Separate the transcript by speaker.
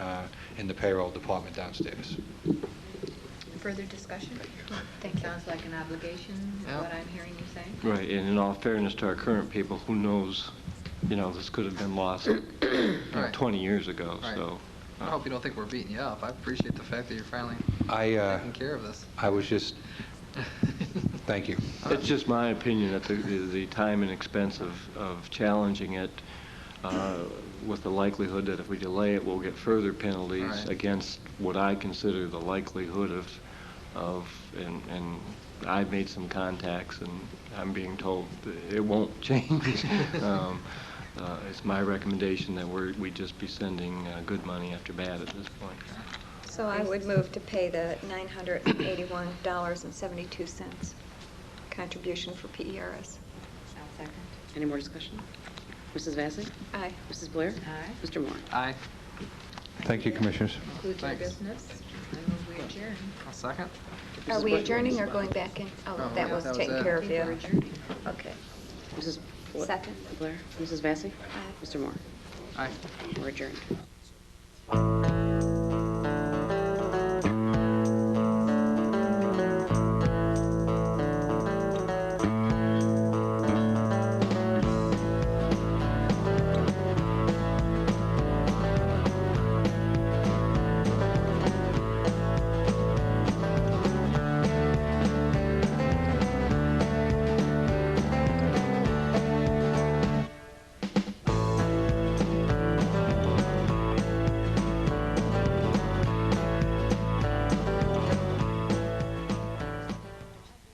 Speaker 1: uh, in the payroll department downstairs.
Speaker 2: Further discussion?
Speaker 3: Thank you.
Speaker 2: Sounds like an obligation, is
Speaker 3: Yeah.
Speaker 2: what I'm hearing you saying.
Speaker 4: Right, and in all fairness to our current people, who knows, you know, this could have been lost you know,
Speaker 3: Right.
Speaker 4: 20 years ago,
Speaker 3: Right.
Speaker 4: so. uh,
Speaker 3: I hope you don't think we're beating you up. I appreciate the fact that you're finally
Speaker 1: I, uh,
Speaker 3: taking care of this.
Speaker 1: I was just, thank you.
Speaker 4: It's just my opinion that the, the the time and expense of, of challenging it uh, with the likelihood that if we delay it, we'll get further penalties
Speaker 3: Right.
Speaker 4: against what I consider the likelihood of, of, and, and I've made some contacts and I'm being told that it won't change. Um, uh, It's my recommendation that we're, we just be sending uh, good money after bad at this point.
Speaker 5: So I would move to pay the $981.72 contribution for E PERS.
Speaker 2: I'll second.
Speaker 6: Any more discussion? Mrs. Vacy?
Speaker 5: Aye.
Speaker 6: Mrs. Blair?
Speaker 2: Aye.
Speaker 6: Mr. Moore?
Speaker 3: Aye.
Speaker 1: Thank you, Commissioners.
Speaker 2: Concludes our
Speaker 3: Thanks.
Speaker 2: business. I move we adjourn.
Speaker 3: A second?
Speaker 5: Are we adjourning or going back in? Oh,
Speaker 3: Oh,
Speaker 5: that
Speaker 3: yeah,
Speaker 5: was E
Speaker 3: that was
Speaker 5: taken
Speaker 3: it.
Speaker 2: I
Speaker 5: care of,
Speaker 2: think
Speaker 5: yeah.
Speaker 2: we're adjourning.
Speaker 5: Okay.
Speaker 6: Mrs. Bla-
Speaker 5: Second.
Speaker 6: Blair? Mrs. Vacy?
Speaker 5: Aye.
Speaker 6: Mr. Moore?
Speaker 3: Aye.
Speaker 6: We're adjourned.